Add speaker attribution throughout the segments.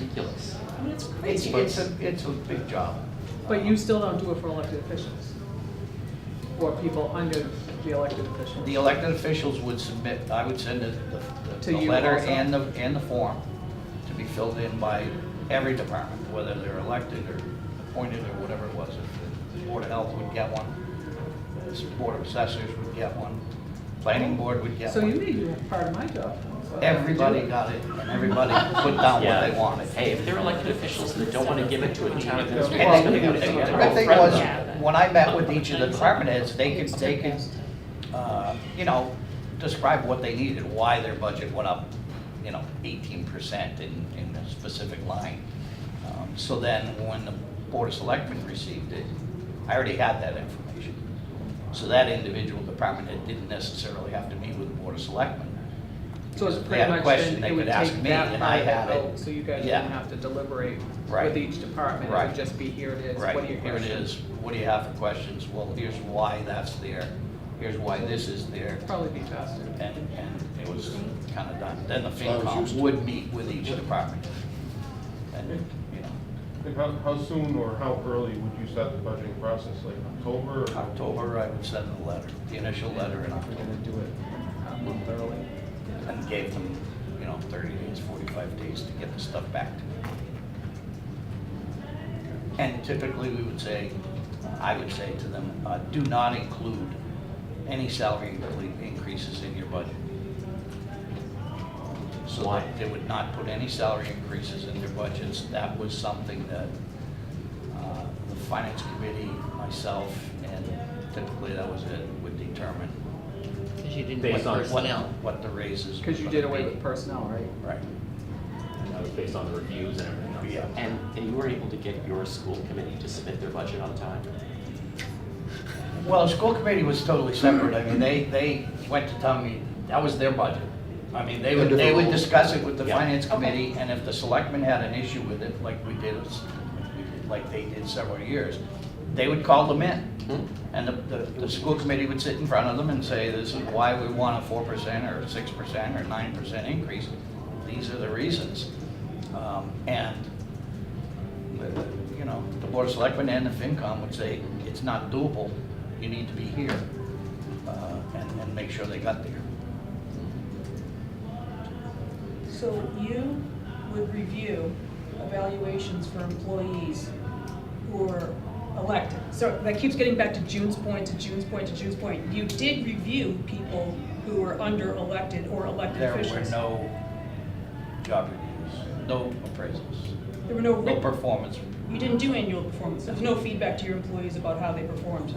Speaker 1: ridiculous. I mean, it's
Speaker 2: It's,
Speaker 1: crazy.
Speaker 2: it's a, it's a big job.
Speaker 3: But you still don't do it for elected officials? Or people under the elected officials?
Speaker 2: The elected officials would submit, I would send the, the-
Speaker 3: To
Speaker 2: the
Speaker 3: you
Speaker 2: letter
Speaker 3: also?
Speaker 2: and the, and the form to be filled in by every department, whether they're elected or appointed or whatever it was. If the Board of Health would get one, the Board of Assessors would get one, Planning Board would get
Speaker 3: So you
Speaker 2: one.
Speaker 3: made you part of my job. so I have to do
Speaker 2: Everybody
Speaker 3: it.
Speaker 2: got it, and everybody put down what they wanted.
Speaker 1: Hey, if they're elected officials and they don't want to give it to a town administrator, it's
Speaker 2: And
Speaker 1: going to go
Speaker 2: then,
Speaker 1: to
Speaker 2: the
Speaker 1: some
Speaker 2: good
Speaker 1: terrible
Speaker 2: thing
Speaker 1: friend
Speaker 2: was,
Speaker 1: of them.
Speaker 2: when I met with each of the department heads, they could, they could, uh, you know, describe what they needed, why their budget went up, you know, eighteen percent in, in a specific line. Um, So then, when the Board of Selectmen received it, I already had that information. So that individual department head didn't necessarily have to meet with the Board of Selectmen.
Speaker 3: So it's
Speaker 2: If they
Speaker 3: pretty
Speaker 2: had a
Speaker 3: much
Speaker 2: question,
Speaker 3: then
Speaker 2: they
Speaker 3: it would
Speaker 2: could ask
Speaker 3: take
Speaker 2: me,
Speaker 3: that
Speaker 2: and I
Speaker 3: part of
Speaker 2: had
Speaker 3: the
Speaker 2: it.
Speaker 3: vote, so you guys
Speaker 2: Yeah.
Speaker 3: wouldn't have to deliberate
Speaker 2: Right.
Speaker 3: with each department. It
Speaker 2: Right.
Speaker 3: would just be, here it is,
Speaker 2: Right,
Speaker 3: what are your
Speaker 2: here it
Speaker 3: questions?
Speaker 2: is, what do you have for questions? Well, here's why that's there, here's why this is there,
Speaker 3: Probably be faster.
Speaker 2: and, and it was kind of done. Then the
Speaker 4: Well, I was
Speaker 2: FinCom
Speaker 4: used to-
Speaker 2: would meet with each department. And, you know,
Speaker 5: Like how, how soon or how early would you start the budgeting process, like October? or-
Speaker 2: October, I would send the letter, the initial letter in
Speaker 4: We're
Speaker 2: October,
Speaker 4: gonna do it uh, a month early.
Speaker 2: and gave them, you know, thirty days, forty-five days to get the stuff back to me. And typically, we would say, I would say to them, uh, do not include any salary incre- increases in your budget. So
Speaker 1: Why?
Speaker 2: they would not put any salary increases in their budgets. That was something that uh, the finance committee, myself, and typically that was it, would determine.
Speaker 6: Because you didn't
Speaker 2: what
Speaker 6: put
Speaker 2: the- what-
Speaker 6: personnel.
Speaker 2: What the raises.
Speaker 3: Because you
Speaker 2: were
Speaker 3: did
Speaker 2: gonna
Speaker 3: away
Speaker 2: be.
Speaker 3: with personnel, right?
Speaker 2: Right,
Speaker 7: And that was based on the reviews and everything else.
Speaker 2: yeah.
Speaker 1: And, and you were able to get your school committee to submit their budget on time.
Speaker 2: Well, the school committee was totally separate. I mean, they, they went to town meeting. That was their budget. I mean, they would, they would discuss it with the
Speaker 1: Yeah.
Speaker 2: finance committee, and if the selectmen had an issue with it, like we did, like they did several years, they would call them in.
Speaker 1: Hmm?
Speaker 2: And the, the, the school committee would sit in front of them and say, this is why we want a four percent or six percent or nine percent increase. These are the reasons. Um, And, uh, you know, the board of selectmen and the FinCom would say, it's not doable, you need to be here. uh, And, and make sure they got there.
Speaker 8: So you would review evaluations for employees who are elected. So that keeps getting back to June's point, to June's point, to June's point. You did review people who were under elected or elected
Speaker 2: There were
Speaker 8: officials.
Speaker 2: no job reviews, no appraisals,
Speaker 8: There were no,
Speaker 2: no
Speaker 8: writ-
Speaker 2: performance.
Speaker 8: you didn't do annual performance. There was no feedback to your employees about how they performed.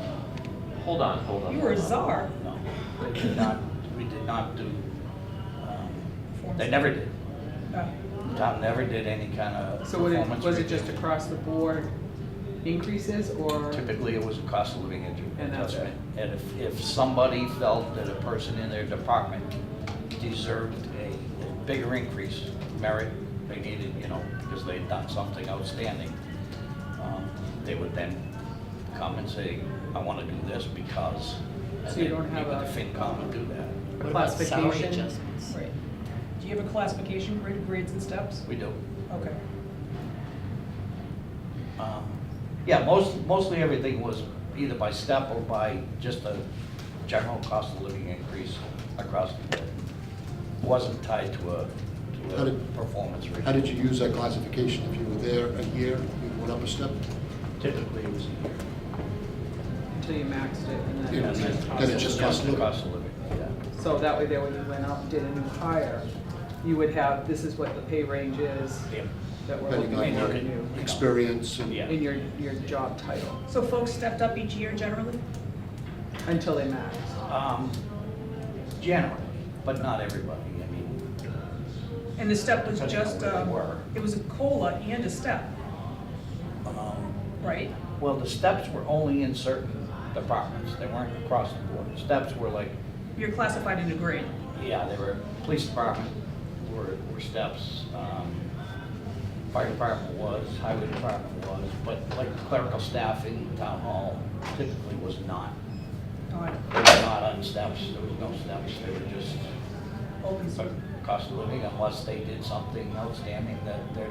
Speaker 1: Hold on, hold on.
Speaker 8: You were a
Speaker 1: hold on.
Speaker 8: czar.
Speaker 2: No, we did not, we did not do, um, they never did.
Speaker 8: Uh,
Speaker 2: Tom never did any kind of
Speaker 3: So what it-
Speaker 2: performance
Speaker 3: was it just
Speaker 2: review.
Speaker 3: across the board increases or?
Speaker 2: Typically, it was a cost of living adju-
Speaker 3: And that's
Speaker 2: adjustment. And if, if somebody felt that a person in their department deserved a a bigger increase, merit, they needed, you know, because they'd done something outstanding, um, they would then come and say, I want to do this because. and
Speaker 3: So you
Speaker 2: then
Speaker 3: don't have
Speaker 2: even
Speaker 3: a-
Speaker 2: the FinCom would do that.
Speaker 6: What about salary
Speaker 3: Classification.
Speaker 6: adjustments?
Speaker 8: Right. Do you have a classification grid, grades and steps?
Speaker 2: We do.
Speaker 8: Okay.
Speaker 2: Um, Yeah, most, mostly everything was either by step or by just a general cost of living increase across the board. Wasn't tied to a,
Speaker 4: How
Speaker 2: to a
Speaker 4: did-
Speaker 2: performance rate.
Speaker 4: How did you use that classification? If you were there a year, you went up a step?
Speaker 2: Typically, it was a
Speaker 3: Until you maxed it and then.
Speaker 4: Yeah,
Speaker 2: year. And
Speaker 4: Then it's-
Speaker 3: cost
Speaker 4: then
Speaker 3: of
Speaker 4: it's just
Speaker 3: living.
Speaker 4: cost of living.
Speaker 2: Cost of living, yeah.
Speaker 3: So that way there when you went out and did a new hire, you would have, this is what the pay range is that we're
Speaker 4: Depending
Speaker 3: looking
Speaker 4: on
Speaker 3: at in
Speaker 4: your
Speaker 3: you.
Speaker 4: experience and.
Speaker 2: Yeah.
Speaker 3: In your, your job title,
Speaker 8: So folks stepped up each year generally?
Speaker 3: until they maxed.
Speaker 2: Um, Generally, but not everybody, I mean,
Speaker 8: And the step was
Speaker 2: Depending on
Speaker 8: just,
Speaker 2: where you
Speaker 8: um,
Speaker 2: were.
Speaker 8: it was a COLA and a step,
Speaker 2: um,
Speaker 8: right?
Speaker 2: Well, the steps were only in certain departments, they weren't across the board. Steps were like
Speaker 8: You're classified in a grade.
Speaker 2: Yeah, they were, police department were, were steps, um, fire department was, highway department was, but like clerical staff in town hall typically was not.
Speaker 8: on
Speaker 2: They were not on steps, there was no steps, they were just
Speaker 8: open
Speaker 2: cost of living unless they did something outstanding that their